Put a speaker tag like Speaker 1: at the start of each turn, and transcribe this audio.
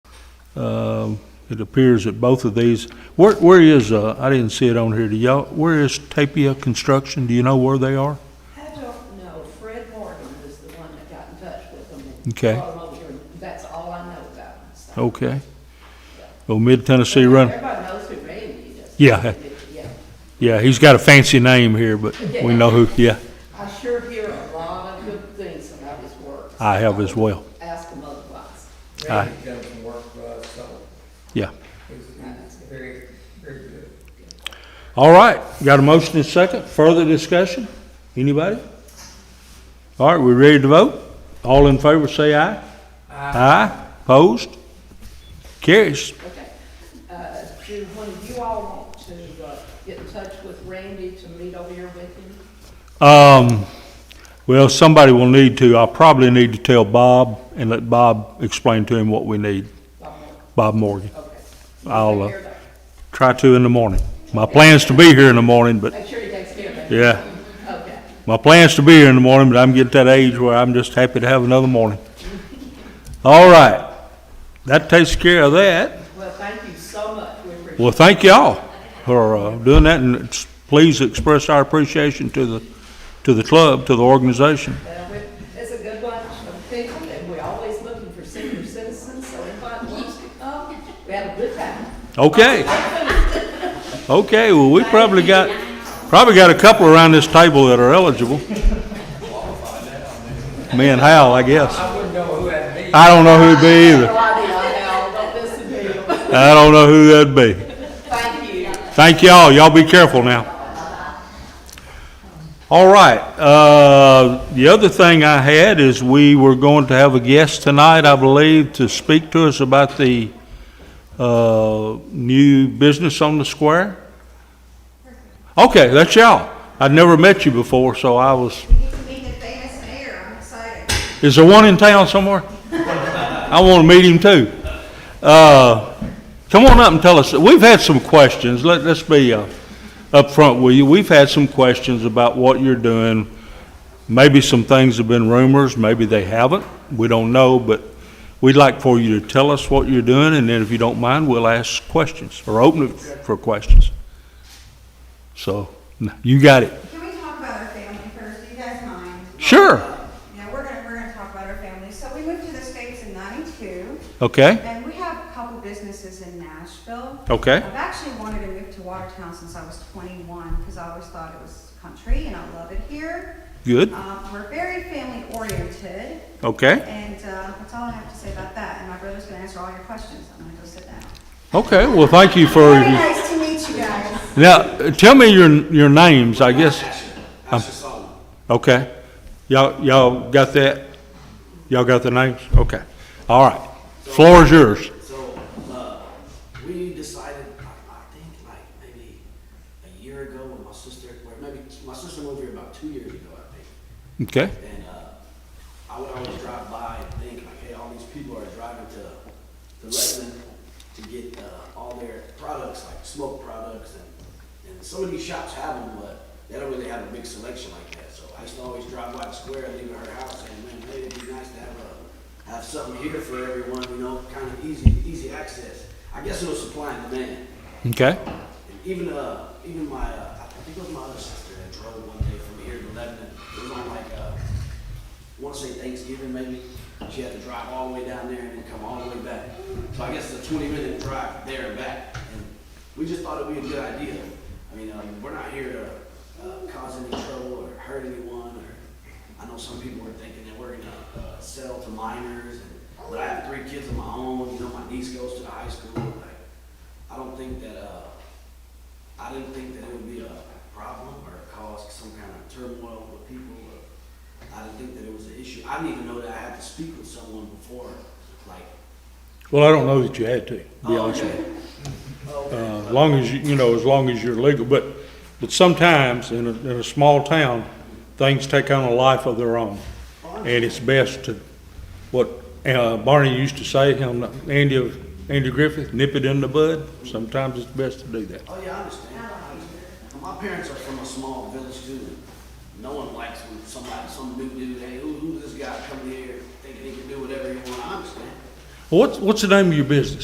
Speaker 1: Um, It appears that both of these, where, where is, uh, I didn't see it on here, do y'all, where is Tapia Construction? Do you know where they are?
Speaker 2: I don't know, Fred Morgan was the one that got in touch with them. and
Speaker 1: Okay.
Speaker 2: brought 'em over here, and That's all I know about them. so.
Speaker 1: Okay. Oh, Mid Tennessee Run,
Speaker 2: Everybody knows who Randy is.
Speaker 1: Yeah.
Speaker 2: Yeah.
Speaker 1: yeah, he's got a fancy name here, but we know who, yeah,
Speaker 2: I sure hear a lot of good things about his work.
Speaker 1: I have as well,
Speaker 2: Ask him otherwise.
Speaker 1: Aye.
Speaker 3: Randy done some work for us, so
Speaker 1: yeah.
Speaker 3: he's he's very, very good.
Speaker 1: All right, got a motion and a second, further discussion? Anybody? All right, we ready to vote? All in favor, say aye. Aye, opposed? Carries.
Speaker 2: Okay. Uh, Do one of you all want to uh, get in touch with Randy to meet over here with him?
Speaker 1: Um, well, somebody will need to, I'll probably need to tell Bob and let Bob explain to him what we need,
Speaker 2: Bob Morgan,
Speaker 1: Bob Morgan.
Speaker 2: Okay.
Speaker 1: I'll, uh,
Speaker 2: Take care of that.
Speaker 1: Try to in the morning. My plan's to be here in the morning, but,
Speaker 2: Make sure he takes care of that.
Speaker 1: yeah,
Speaker 2: Okay.
Speaker 1: my plan's to be here in the morning, but I'm getting to that age where I'm just happy to have another morning. All right, that takes care of that.
Speaker 2: Well, thank you so much. We appreciate it.
Speaker 1: Well, thank y'all for uh, doing that, and it's- please express our appreciation to the, to the club, to the organization.
Speaker 2: Uh, we- It's a good bunch of people, and we're always looking for senior citizens, so anybody who wants to come, we have a good time.
Speaker 1: Okay. Okay, well, we probably got, probably got a couple around this table that are eligible. Me and Hal, I guess.
Speaker 3: I wouldn't know who that'd be.
Speaker 1: I don't know who'd be either.
Speaker 2: No idea how, but this is him.
Speaker 1: I don't know who that'd be.
Speaker 2: Thank you.
Speaker 1: Thank y'all, y'all be careful now. All right, uh, the other thing I had is we were going to have a guest tonight, I believe, to speak to us about the, uh, new business on the square. Okay, that's y'all. I'd never met you before, so I was,
Speaker 4: We get to meet the famous mayor, I'm excited.
Speaker 1: is there one in town somewhere? I want to meet him too. Uh, Come on up and tell us, we've had some questions, Let- let's be uh, upfront with you. We've had some questions about what you're doing. Maybe some things have been rumors, maybe they haven't, we don't know, but we'd like for you to tell us what you're doing, and then if you don't mind, we'll ask questions, or open it for questions. So, you got it.
Speaker 4: Can we talk about our family first, do you guys mind?
Speaker 1: Sure.
Speaker 4: Yeah, we're gonna, we're gonna talk about our family. So we moved to the States in ninety-two,
Speaker 1: Okay,
Speaker 4: and we have a couple businesses in Nashville.
Speaker 1: okay,
Speaker 4: I've actually wanted to move to Watertown since I was twenty-one, because I always thought it was country, and I love it here.
Speaker 1: good,
Speaker 4: Uh, we're very family-oriented,
Speaker 1: okay,
Speaker 4: and, uh, that's all I have to say about that, and my brother's gonna answer all your questions, I'm gonna go sit down.
Speaker 1: okay, well, thank you for.
Speaker 4: Very nice to meet you guys.
Speaker 1: Now, tell me your, your names, I guess. Okay. Y'all, y'all got that? Y'all got the names? Okay. All right. Floor is yours.
Speaker 5: So, uh, we decided, I, I think like maybe a year ago when my sister, or maybe, my sister moved here about two years ago, I think.
Speaker 1: Okay,
Speaker 5: And uh, I would always drive by and think, like, hey, all these people are driving to, to Redmond to get uh, all their products, like smoke products, and, and some of these shops have them, but they don't really have a big selection like that. So I used to always drive by the square, leave at her house, and man, hey, it'd be nice to have a, have something here for everyone, you know, kind of easy, easy access. I guess it was supply and demand.
Speaker 1: okay,
Speaker 5: And even uh, even my uh, I think it was my other sister that drove one day from here to Lebanon. It was on like uh, I want to say Thanksgiving maybe. She had to drive all the way down there and then come all the way back. So I guess it's a 20 minute drive there and back. And we just thought it'd be a good idea. I mean, um, we're not here to uh, cause any trouble or hurt anyone. Or I know some people are thinking that we're gonna uh, sell to minors. And, but I have three kids of my own. You know, my niece goes to the high school. Like, I don't think that. Uh, I didn't think that it would be a problem or cause some kind of turmoil with people. or- I didn't think that it was an issue. I didn't even know that I had to speak with someone before, like.
Speaker 1: well, I don't know that you had to, to be
Speaker 5: oh,
Speaker 1: honest with you.
Speaker 5: okay. Okay.
Speaker 1: Uh, as long as, you you know, as long as you're legal, but, but sometimes in a, in a small town, things take on a life of their own. And it's best to, what uh, Barney used to say, him, Andy, Andy Griffith, nip it in the bud. Sometimes it's best to do that.
Speaker 5: Oh, yeah, I understand. I understand. My parents are from a small village too. No one likes when somebody, some new dude, hey, who, who's this guy coming here thinking he can do whatever he wants? I understand.
Speaker 1: What's, what's the name of your business?